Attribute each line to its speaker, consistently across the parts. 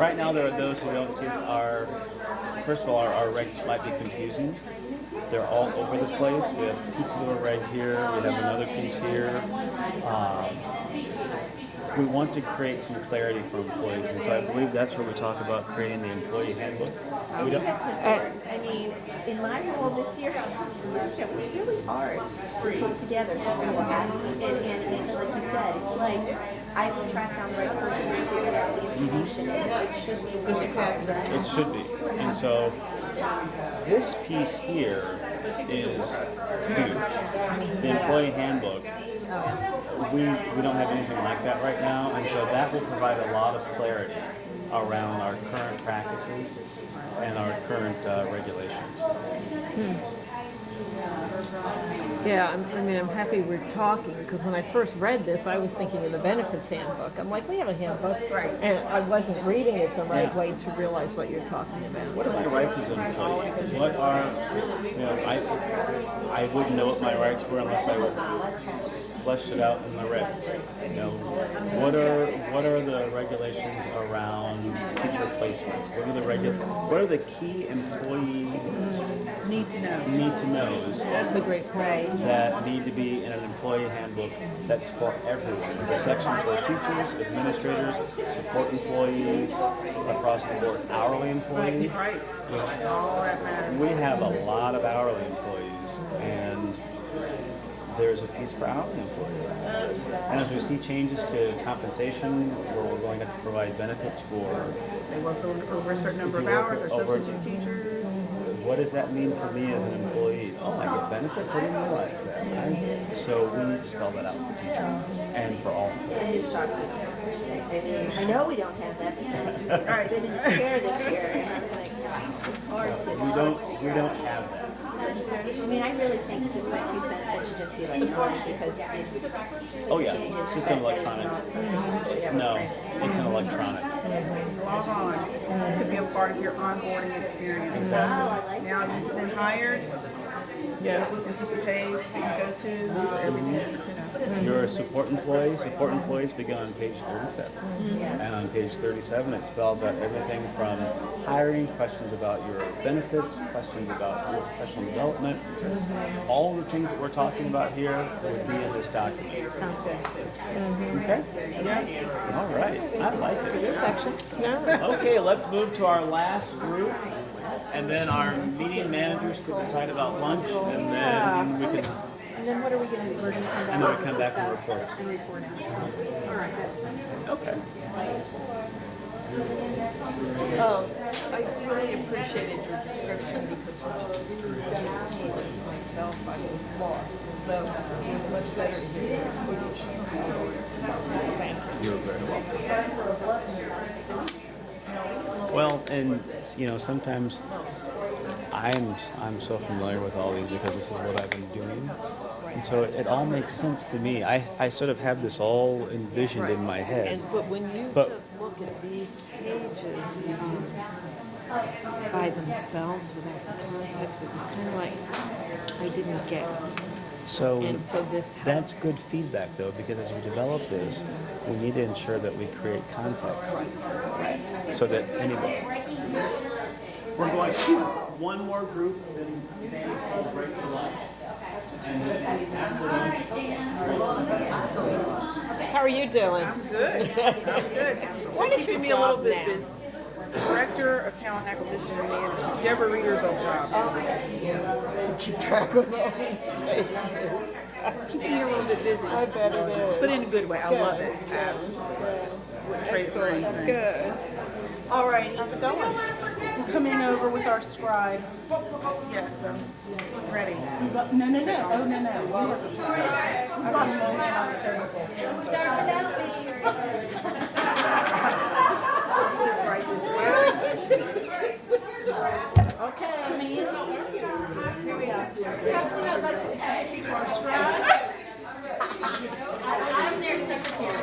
Speaker 1: right now, there are those who don't see that our, first of all, our, our regs might be confusing. They're all over the place. We have pieces of a reg here, we have another piece here. Um, We want to create some clarity for employees, and so I believe that's where we talk about creating the employee handbook. We
Speaker 2: I think
Speaker 1: don't,
Speaker 2: that's important. I mean, in my role this year, it was really hard to put together people who were asking, and, and, and like you said, it's like, I have to track down the right person to give them all the information, and it should be more complex.
Speaker 1: It should be. And so this piece here is huge. The employee handbook. We, we don't have anything like that right now, and so that will provide a lot of clarity around our current practices and our current uh, regulations.
Speaker 3: Yeah, I'm, I mean, I'm happy we're talking because when I first read this, I was thinking of the benefits handbook. I'm like, we have a handbook,
Speaker 2: Right.
Speaker 3: and I wasn't reading it the right
Speaker 1: Yeah.
Speaker 3: way to realize what you're talking about.
Speaker 1: What are my rights as an employee? What are, you know, I, I wouldn't know what my rights were unless I fleshed it out in the regs. You know, what are, what are the regulations around teacher placement? What are the regu, what are the key employee
Speaker 4: Need to know.
Speaker 1: need to knows
Speaker 3: That's a great point.
Speaker 2: Right.
Speaker 1: that need to be in an employee handbook that's for everyone. The section for teachers, administrators, support employees, across the board, hourly employees.
Speaker 4: Right. All that matters.
Speaker 1: We have a lot of hourly employees, and there's a piece for hourly employees. And as we see changes to compensation, where we're going to have to provide benefits for,
Speaker 4: They work over over a certain number
Speaker 1: If
Speaker 4: of
Speaker 1: you work
Speaker 4: hours, or
Speaker 1: over-
Speaker 4: substitute teachers.
Speaker 1: what does that mean for me as an employee? Oh, I get benefits, I didn't realize that. I- So we need to spell that out for teachers and for all.
Speaker 2: It is shocking. I mean, I know we don't have that because I've been in the chair this year, and it's like, it's hard to.
Speaker 1: We don't, we don't have that.
Speaker 2: I mean, I really think it's just my two cents that should just be like, oh, because it's.
Speaker 1: Oh, yeah, it's just an electronic. No, it's an electronic.
Speaker 4: Log on. It Could be a part of your onboarding experience. Now you've been hired. Yeah. This is the page that you go to for everything you need to know.
Speaker 1: You're a support employee. Support employees begin on page 37.
Speaker 5: Mm-hmm.
Speaker 1: And on page 37, it spells out everything from hiring, questions about your benefits, questions about your professional development.
Speaker 5: Mm-hmm.
Speaker 1: All the things that we're talking about here would be in this document.
Speaker 5: Sounds good.
Speaker 1: Okay? Yeah. All right. I like it.
Speaker 5: Section?
Speaker 1: Okay, let's move to our last group. And then our meeting managers could decide about lunch and then we can
Speaker 5: And then what are we gonna do? We're gonna come back.
Speaker 1: And then we come back and
Speaker 5: discuss
Speaker 1: report.
Speaker 5: And report out. All right.
Speaker 1: Okay.
Speaker 6: Um, I really appreciated your description because when I was doing this myself, I was lost. So it was much better to hear your explanation. Thank you.
Speaker 1: You're very welcome. Well, and you know, sometimes I'm I'm so familiar with all these because this is what I've been doing, and so it all makes sense to me. I I sort of have this all envisioned in my head.
Speaker 3: And but when you
Speaker 1: But-
Speaker 3: just look at these pages um, by themselves without the context, it was kind of like I didn't get it.
Speaker 1: So
Speaker 3: And so this
Speaker 1: that's
Speaker 3: helps.
Speaker 1: good feedback though, because as we develop this, we need to ensure that we create context so that anybody. We're going one more group, then Sandy's will break for lunch.
Speaker 3: How are you doing?
Speaker 4: I'm good. I'm good. What
Speaker 3: What's your
Speaker 4: keeping me a little
Speaker 3: job
Speaker 4: bit
Speaker 3: now?
Speaker 4: busy? Director of Talent Acquisition and Management, Deborah Reader's old job.
Speaker 3: Keep track of all these pages.
Speaker 4: It's keeping me a little bit busy,
Speaker 3: I bet it is.
Speaker 4: but in a good way. I love it. I Absolutely. Would trade it for anything.
Speaker 6: Good.
Speaker 4: All right, how's it going?
Speaker 7: I'm coming over with our scribe.
Speaker 4: Yes, I'm ready.
Speaker 7: No, no, no. Oh, no, no. You were the scribe. I don't know what I'm talking about.
Speaker 4: Get right this way.
Speaker 5: Okay,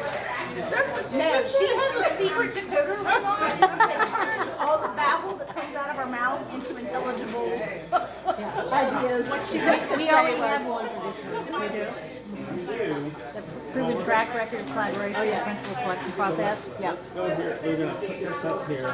Speaker 7: No, she has a secret decoder line that turns all the babble that comes out of our mouth into intelligible ideas. What she meant
Speaker 5: we already have one for this room.
Speaker 7: We do. The proven track record collaboration, principal selection process, yeah.
Speaker 1: Go here, we're gonna put this up here.